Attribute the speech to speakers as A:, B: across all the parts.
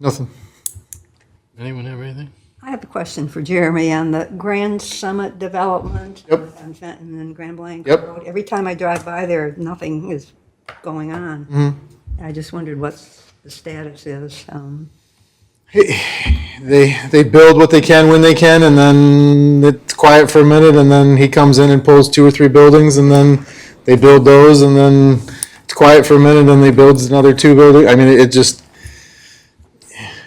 A: Nothing.
B: Anyone have anything?
C: I have a question for Jeremy on the Grand Summit development.
A: Yep.
C: On Fenton and Grand Blanc.
A: Yep.
C: Road. Every time I drive by there, nothing is going on.
A: Mm-hmm.
C: I just wondered what the status is. Um,
A: They they build what they can when they can, and then it's quiet for a minute, and then he comes in and pulls two or three buildings, and then they build those, and then it's quiet for a minute, and then they builds another two building. I mean, it just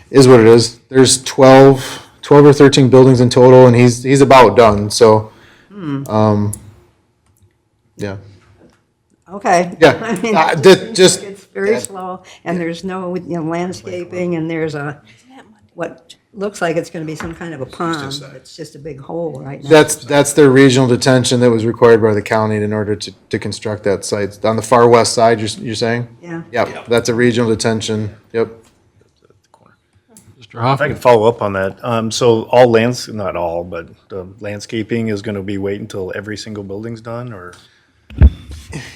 A: is what it is. There's 12, 12 or thirteen buildings in total, and he's he's about done. So,
C: Hmm.
A: um, yeah,
C: Okay.
A: Yeah.
C: I mean,
A: Uh,
C: it
A: that-
C: seems
A: just-
C: like It's very slow, and there's no, you know, landscaping, and there's a, what looks like it's going to be some kind of a pond. It's just a big hole right now.
A: That's, that's their regional detention that was required by the county in order to, to construct that site. On the far west side, you're, s- you're saying?
C: Yeah.
A: Yep, that's a regional detention, yep.
B: Mr.
D: If I
B: Hoffman?
D: can follow up on that, um, so all lands, not all, but the landscaping is gonna be wait until every single building's done, or?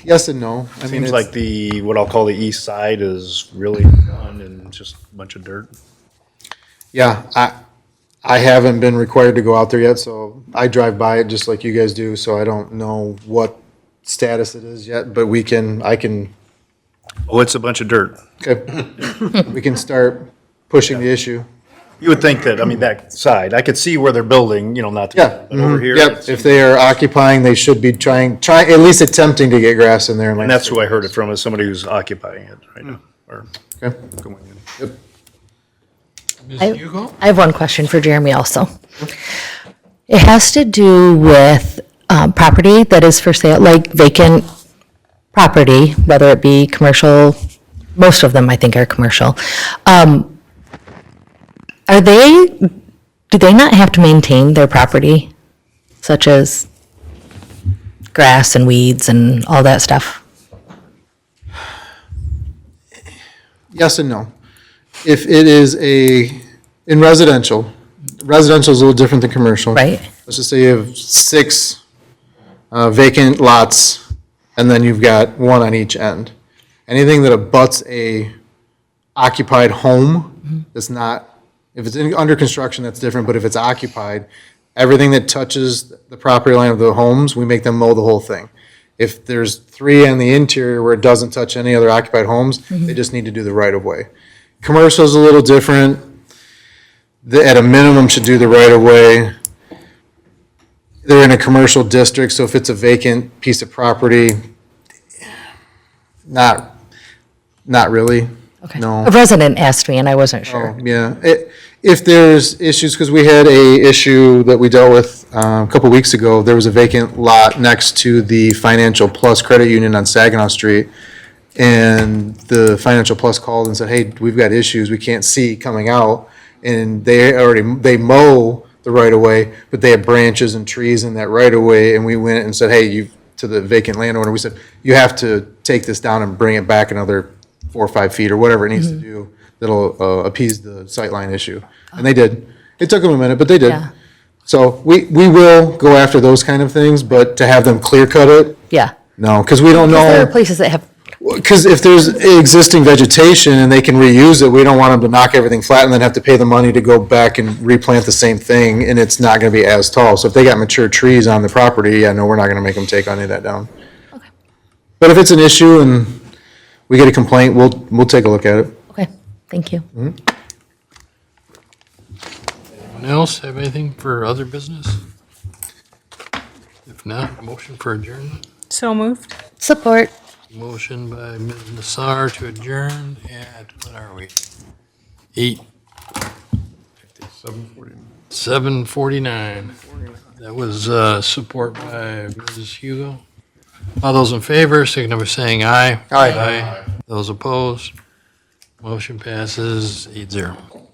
A: Yes and no. I mean,
D: Seems
A: it's
D: like the, what I'll call the east side is really done and just a bunch of dirt.
A: Yeah, I, I haven't been required to go out there yet, so I drive by it just like you guys do, so I don't know what status it is yet, but we can, I can,
D: Oh, it's a bunch of dirt.
A: okay, we can start pushing the issue.
D: You would think that, I mean, that side, I could see where they're building, you know, not. to-
A: Yeah. Mm-hmm.
D: But over here.
A: Yep, if they are occupying, they should be trying, try, at least attempting to get grass in there.
D: And that's who I heard it from, is somebody who's occupying it right now, or
A: Hmm. Okay.
D: going in.
B: Ms.
E: I-
B: Hugo?
E: I have one question for Jeremy also. It has to do with um, property that is for sale, like vacant property, whether it be commercial, most of them I think are commercial. Um, Are they, do they not have to maintain their property, such as grass and weeds and all that stuff?
A: Yes and no. If it is a, in residential, residential is a little different than commercial.
E: Right.
A: Let's just say you have six uh, vacant lots, and then you've got one on each end. Anything that abuts a occupied home that's not, if it's in- under construction, that's different, but if it's occupied, everything that touches the property line of the homes, we make them mow the whole thing. If there's three in the interior where it doesn't touch any other occupied homes, they just need to do the right-of-way. Commercial's a little different. They, at a minimum, should do the right-of-way. They're in a commercial district, so if it's a vacant piece of property, not, not really.
E: Okay.
A: No.
E: A resident asked me and I wasn't sure.
A: Oh, yeah. I- If there's issues, because we had a issue that we dealt with um, a couple weeks ago, there was a vacant lot next to the Financial Plus Credit Union on Saginaw Street. And the Financial Plus called and said, hey, we've got issues, we can't see coming out. And they already, they mow the right-of-way, but they have branches and trees in that right-of-way. And we went and said, hey, you, to the vacant landowner, we said, you have to take this down and bring it back another four or five feet or whatever it needs
E: Mm-hmm.
A: to do that'll uh, appease the sightline issue. And they did. It took them a minute, but they did.
E: Yeah.
A: So we, we will go after those kind of things, but to have them clear cut it,
E: Yeah.
A: Oh. no, because we don't
E: There are
A: know.
E: places that have
A: Because if there's existing vegetation and they can reuse it, we don't want them to knock everything flat and then have to pay the money to go back and replant the same thing and it's not going to be as tall. So if they got mature trees on the property, yeah, no, we're not going to make them take any of that down. But if it's an issue and we get a complaint, we'll, we'll take a look at it.
E: Okay, thank you.
A: Mm-hmm.
B: Anyone else have anything for other business? If not, motion for adjournment.
F: So moved.
E: Support.
B: Motion by Ms. Nassar to adjourn at, what are we? Eight. Seven forty-nine. That was, uh, support by Mrs. Hugo. All those in favor, signify by saying aye.
A: Aye.
B: Those opposed, motion passes eight zero.